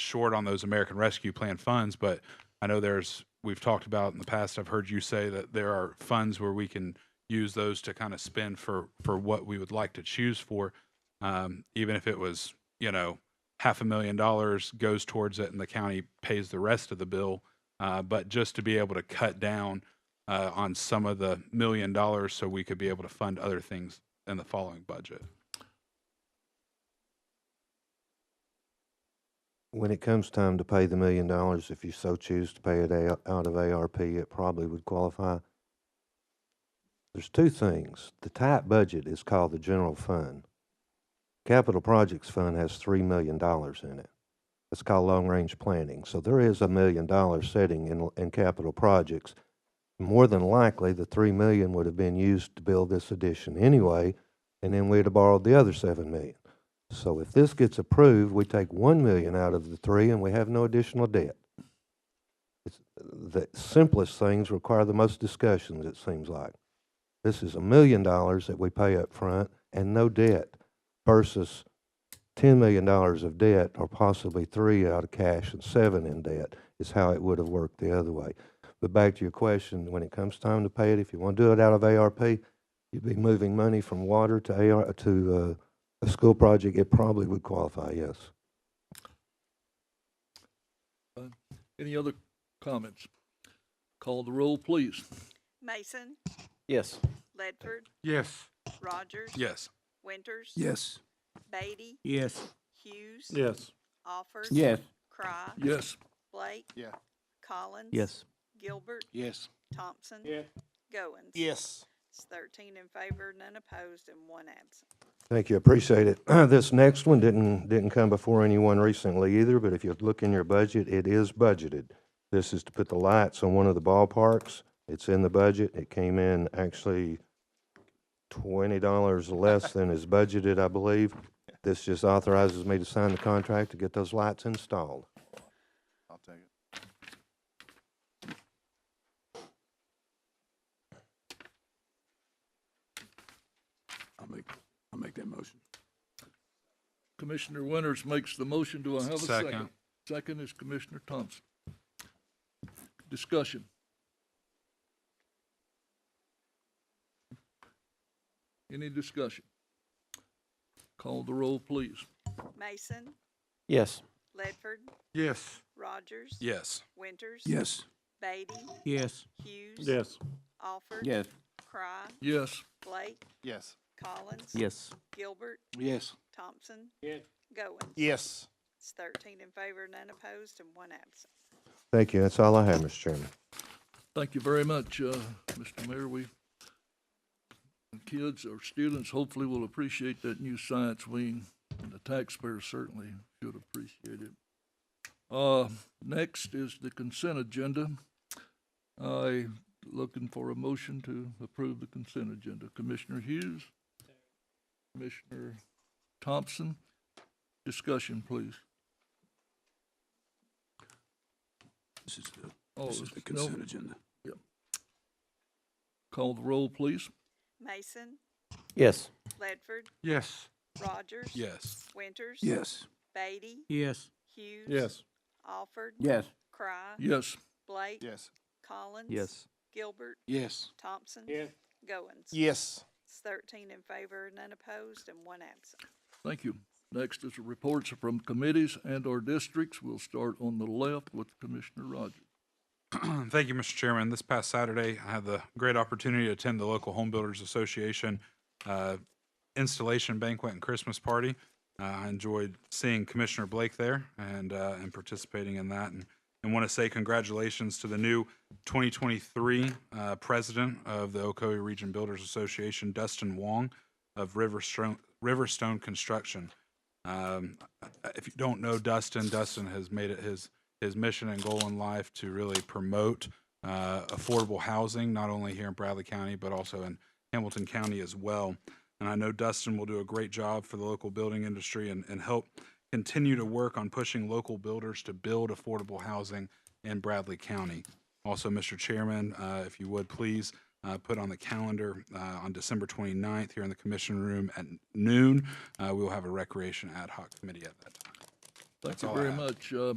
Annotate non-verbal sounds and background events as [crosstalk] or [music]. short on those American Rescue Plan funds, but I know there's we've talked about in the past. I've heard you say that there are funds where we can use those to kind of spend for for what we would like to choose for, um, even if it was you know half a million dollars goes towards it and the county pays the rest of the bill. Uh, but just to be able to cut down uh, on some of the million dollars so we could be able to fund other things in the following budget. When it comes time to pay the million dollars, if you so choose to pay it a- out of ARP, it probably would qualify. There's two things. The tight budget is called the general fund. Capital Projects Fund has three million dollars in it. It's called long-range planning. So there is a million dollar setting in, in capital projects. More than likely, the three million would have been used to build this addition anyway, and then we'd have borrowed the other seven million. So if this gets approved, we take one million out of the three and we have no additional debt. It's, the simplest things require the most discussions, it seems like. This is a million dollars that we pay up front and no debt versus ten million dollars of debt or possibly three out of cash and seven in debt is how it would have worked the other way. But back to your question, when it comes time to pay it, if you want to do it out of ARP, you'd be moving money from water to AR, to, uh, a school project, it probably would qualify, yes. Any other comments? Call the roll, please. Mason, Yes. Ledford, Yes. Rogers, Yes. Winters, Yes. Beatty, Yes. Hughes, Yes. Alford, Yes. Cry, Yes, Blake, Yeah. Collins, Gilbert, Yes. Thompson, Yeah. Goins. Yes. It's thirteen in favor, none opposed, and one absent. Thank you, appreciate it. [clears throat] This next one didn't, didn't come before anyone recently either, but if you look in your budget, it is budgeted. This is to put the lights on one of the ballparks. It's in the budget. It came in actually twenty dollars less than is budgeted, I believe. This just authorizes me to sign the contract to get those lights installed. I'll take it. I'll make, I'll make that motion. Commissioner Winters makes the motion. Do I have a second? Second. Second is Commissioner Thompson. Discussion. Any discussion? Call the roll, please. Mason, Yes. Ledford, Yes. Rogers, Yes. Winters, Yes. Beatty, Yes. Hughes, Yes. Alford, Cry, Yes, Blake, Yes. Collins, Yes. Gilbert, Yes. Thompson, Yes. Goins. Yes. It's thirteen in favor, none opposed, and one absent. Thank you. That's all I have, Mr. Chairman. thank you very much, uh, Mr. Mayor. We, kids or students hopefully will appreciate that new science wing, and the taxpayers certainly should appreciate it. Uh, next is the consent agenda. I looking for a motion to approve the consent agenda. Commissioner Hughes? Commissioner Thompson? Discussion, please. This is the, Oh, this is the no. consent agenda. Call the roll, please. Mason, Yes. Ledford, Yes. Rogers. Yes. Winters. Yes. Beatty. Yes. Hughes. Yes. Alford. Yes. Cry. Yes, Blake. Yes. Collins. Yes. Gilbert. Yes. Thompson. Goins. Yes. It's thirteen in favor, none opposed, and one absent. Thank you. Next is reports from committees and or districts. We'll start on the left with Commissioner Rogers. [clears throat] Thank you, Mr. Chairman. This past Saturday, I had the great opportunity to attend the local Home Builders Association uh, installation banquet and Christmas party. Uh, I enjoyed seeing Commissioner Blake there and uh, and participating in that, and and want to say congratulations to the new 2023 uh, president of the Ocoee Region Builders Association, Dustin Wong of Riverstone Riverstone Construction. Um, if you don't know Dustin, Dustin has made it his his mission and goal in life to really promote uh, affordable housing, not only here in Bradley County, but also in Hamilton County as well. And I know Dustin will do a great job for the local building industry and, and help continue to work on pushing local builders to build affordable housing in Bradley County. Also, Mr. Chairman, uh, if you would please uh, put on the calendar uh, on December 29th here in the commission room at noon, uh, we will have a recreation ad hoc committee at that time. Thank That's you all I very have. much. Uh,